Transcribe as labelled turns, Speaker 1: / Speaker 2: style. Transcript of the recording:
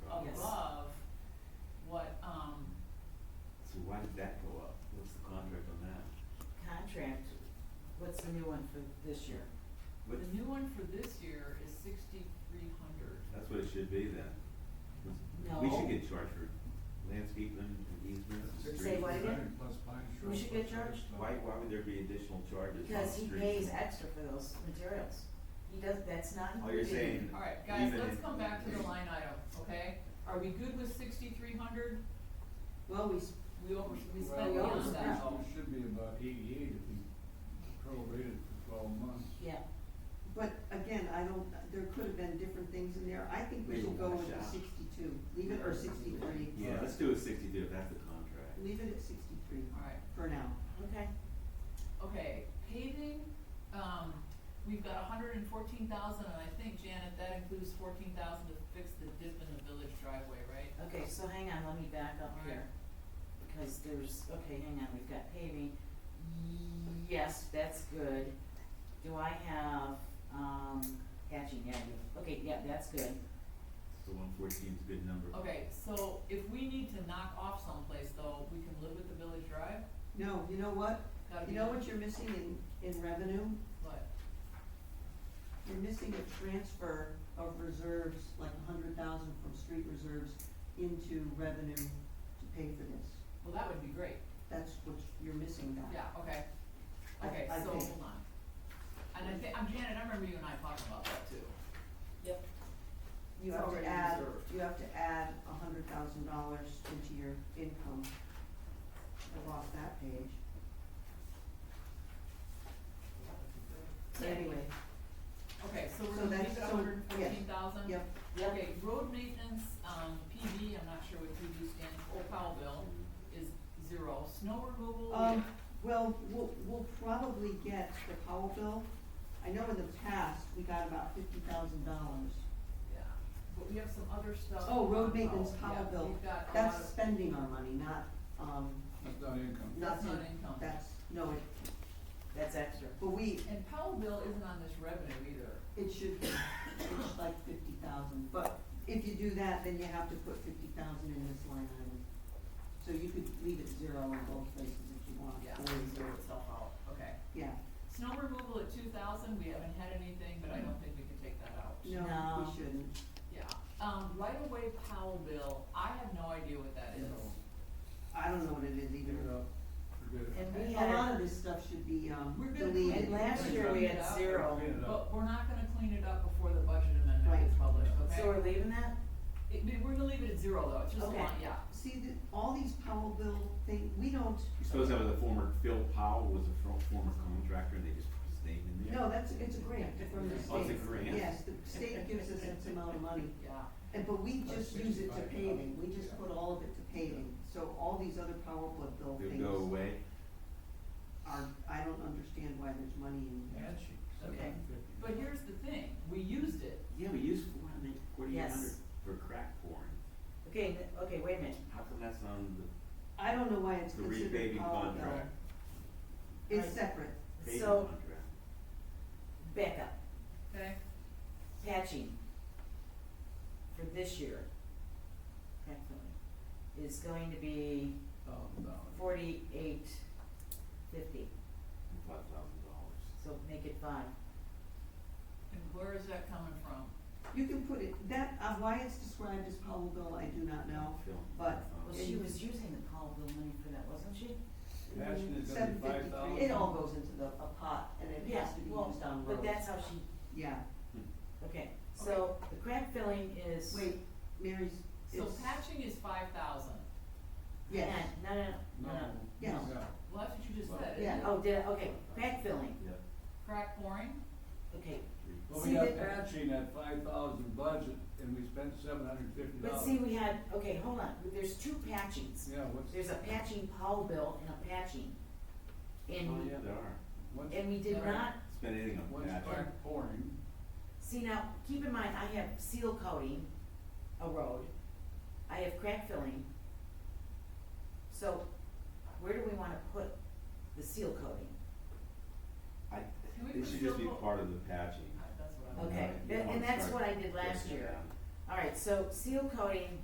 Speaker 1: um,
Speaker 2: charged for landscaping and easements. and
Speaker 3: Say what
Speaker 2: streets.
Speaker 3: again?
Speaker 4: Plus pine
Speaker 3: We should get charged?
Speaker 2: Why, why would there be additional charges on
Speaker 3: Because he
Speaker 2: street?
Speaker 3: pays extra for those materials. He does, that's not
Speaker 2: Oh, you're
Speaker 3: included.
Speaker 2: saying.
Speaker 1: Alright, guys,
Speaker 2: even
Speaker 1: let's
Speaker 2: if-
Speaker 1: come back to the line item, okay? Are we good with sixty-three hundred?
Speaker 3: Well, we, s-
Speaker 1: We over, we
Speaker 4: Well,
Speaker 1: spent
Speaker 3: we
Speaker 1: beyond
Speaker 3: almost
Speaker 1: that
Speaker 3: spent.
Speaker 1: though.
Speaker 4: It should be about eighty-eight if you prorated for twelve months.
Speaker 3: yeah,
Speaker 5: But again, I don't, there could have been different things in there, I think we
Speaker 2: Leave
Speaker 5: should
Speaker 2: it
Speaker 5: go
Speaker 2: one
Speaker 5: with the
Speaker 2: shot.
Speaker 5: sixty-two, leave it, or sixty-three.
Speaker 2: Yeah, let's do a sixty-two, if that's the contract.
Speaker 5: Leave it at sixty-three
Speaker 1: Alright,
Speaker 5: for now.
Speaker 3: okay.
Speaker 1: okay, paving, um, we've got hundred and fourteen thousand, and I think Janet, that includes fourteen thousand to fix the dip in the village driveway, right?
Speaker 3: Okay, so hang on, let me back up here.
Speaker 1: Alright.
Speaker 3: Because there's, okay, hang on, we've got paving. Yes, that's good. Do I have, um, hatching, yeah, I do. okay, yeah, that's good.
Speaker 2: So one fourteen is a good number.
Speaker 1: Okay, so if we need to knock off someplace though, we can live with the village drive?
Speaker 5: No, you know what,
Speaker 1: Gotta be
Speaker 5: you know
Speaker 1: done.
Speaker 5: what you're missing in, in revenue?
Speaker 1: What?
Speaker 5: You're missing a transfer of reserves, like a hundred thousand from street reserves into revenue to pay for this.
Speaker 1: Well, that would be great,
Speaker 5: That's what you're missing now.
Speaker 1: yeah, okay.
Speaker 5: I-
Speaker 1: Okay,
Speaker 5: I
Speaker 1: so,
Speaker 5: think-
Speaker 1: hold on. And I think, I'm Janet, I remember you and I talking about that too. Yep. It's
Speaker 5: You have to
Speaker 1: already
Speaker 5: add,
Speaker 1: reserved.
Speaker 5: you have to add a hundred thousand dollars into your income. I lost that page. Anyway,
Speaker 1: Okay, so
Speaker 5: So
Speaker 1: we're gonna
Speaker 5: that's-
Speaker 1: leave it
Speaker 5: so,
Speaker 1: hundred and fourteen thousand?
Speaker 5: yep,
Speaker 1: Okay, road maintenance, um, PB, I'm not sure what PB stands for, Powell bill is zero, snow removal,
Speaker 5: um,
Speaker 1: we-
Speaker 5: well, we'll, we'll probably get the Powell bill. I know in the past, we got about fifty thousand dollars.
Speaker 1: yeah, but we have some other stuff.
Speaker 5: Oh, road
Speaker 1: on
Speaker 5: maintenance
Speaker 1: yeah,
Speaker 5: Powell bill,
Speaker 1: we've got a lot
Speaker 5: that's
Speaker 1: of-
Speaker 5: spending our money, not, um,
Speaker 4: That's not income.
Speaker 5: not,
Speaker 1: That's not income.
Speaker 5: that's, no, it,
Speaker 3: That's extra.
Speaker 5: but we,
Speaker 1: And Powell bill isn't on this revenue either,
Speaker 5: It should be, it's like fifty thousand, but if you do that, then you have to put fifty thousand in this line item. So you could leave it zero in both places if you want.
Speaker 1: yeah,
Speaker 5: or
Speaker 1: it'll
Speaker 5: zero.
Speaker 1: zero itself out, okay.
Speaker 5: Yeah,
Speaker 1: Snow removal at two thousand, we haven't had anything, but I don't think we can take that out.
Speaker 5: no,
Speaker 3: No.
Speaker 5: we shouldn't.
Speaker 1: Yeah, um, right away Powell bill, I have no idea what that is.
Speaker 5: I don't know what it is
Speaker 4: Leave it
Speaker 5: either.
Speaker 4: up, forget it.
Speaker 3: And we
Speaker 5: A lot
Speaker 3: had,
Speaker 5: of this stuff should be, um,
Speaker 1: We're gonna
Speaker 5: deleted.
Speaker 3: and last year we had zero.
Speaker 4: Clean it up.
Speaker 1: But we're not gonna clean it up before the budget amendment is
Speaker 5: Right.
Speaker 1: published,
Speaker 3: So we're
Speaker 1: okay?
Speaker 3: leaving that?
Speaker 1: It- we- we're gonna leave it at zero though, it's just a
Speaker 3: Okay.
Speaker 1: line, yeah.
Speaker 5: See, the, all these Powell bill thing, we don't,
Speaker 2: You suppose that was a former, Phil Powell was a fro- former contractor and they just put his name in there?
Speaker 5: no, that's, it's a grant from the state.
Speaker 2: Oh, it's a grant?
Speaker 5: Yes, the state gives us X amount of money.
Speaker 1: Yeah,
Speaker 5: And, but we just use it to
Speaker 4: 65,000.
Speaker 5: paving, we just put all of it to paving, so all these other power plug bill
Speaker 2: They'll
Speaker 5: things
Speaker 2: go away.
Speaker 5: are, I don't understand why there's money in there.
Speaker 4: And she,
Speaker 1: Okay.
Speaker 4: seven fifty.
Speaker 1: but here's the thing, we used it,
Speaker 2: Yeah, we used four hundred, forty-eight hundred
Speaker 3: Yes.
Speaker 2: for crack pouring.
Speaker 3: Okay, th- okay, wait a minute.
Speaker 2: How come that's on the,
Speaker 5: I don't know why it's
Speaker 2: the repaving
Speaker 5: considered
Speaker 3: uh,
Speaker 5: power bill,
Speaker 2: contract,
Speaker 5: it's separate,
Speaker 2: paving
Speaker 3: So-
Speaker 2: contract?
Speaker 3: Back up.
Speaker 1: okay?
Speaker 3: patching for this year, definitely, is going to be
Speaker 4: Thousand dollars.
Speaker 3: forty-eight fifty,
Speaker 2: Five thousand dollars.
Speaker 3: so make it five.
Speaker 1: And where is that coming from?
Speaker 5: you can put it, that, uh, why it's described as power bill, I do not know,
Speaker 2: Phil.
Speaker 5: but
Speaker 3: Well,
Speaker 2: Phil.
Speaker 3: she was using the Powell bill money for that, wasn't she?
Speaker 4: Ashton is gonna be
Speaker 5: seven
Speaker 4: five
Speaker 5: fifty-three,
Speaker 4: thousand.
Speaker 5: it all goes into the, a pot, and it
Speaker 3: Yeah,
Speaker 5: has to be
Speaker 3: well,
Speaker 5: used on roads.
Speaker 3: But that's how she,
Speaker 5: Yeah,
Speaker 3: okay, so the crack filling is.
Speaker 5: wait, Mary's,
Speaker 1: So
Speaker 5: it's,
Speaker 1: patching is five thousand,
Speaker 5: yes,
Speaker 3: No, no, no, no, no.
Speaker 4: No,
Speaker 5: Yes.
Speaker 4: no.
Speaker 1: well, that's what you just
Speaker 2: Well,
Speaker 1: said,
Speaker 5: yeah.
Speaker 1: isn't it?
Speaker 3: Oh, did, I- okay, crack filling,
Speaker 2: Yeah.
Speaker 1: Crack pouring,
Speaker 3: okay,
Speaker 4: But
Speaker 3: See,
Speaker 4: we got
Speaker 3: the-
Speaker 4: patching at five thousand budget and we spent seven hundred fifty dollars.
Speaker 3: but see, we had, okay, hold on, there's two patchings.
Speaker 4: Yeah, what's,
Speaker 3: There's a patching Powell bill and a patching. And
Speaker 2: Oh, yeah, there are.
Speaker 4: what's,
Speaker 3: And we did
Speaker 1: Alright.
Speaker 3: not,
Speaker 2: Spend anything on
Speaker 4: what's
Speaker 2: that.
Speaker 4: crack pouring?
Speaker 3: see now, keep in mind, I have seal coating a road, I have crack filling. So where do we wanna put the seal coating?
Speaker 2: I,
Speaker 1: Can we
Speaker 2: it
Speaker 1: put
Speaker 2: should just be
Speaker 1: Phil-
Speaker 2: part of the patching.
Speaker 1: Uh, that's what I'm.
Speaker 3: Okay,
Speaker 2: You
Speaker 3: that-
Speaker 2: don't
Speaker 3: and that's
Speaker 2: start
Speaker 3: what I did last
Speaker 2: breaking it
Speaker 3: year.
Speaker 2: down.
Speaker 3: Alright, so seal coating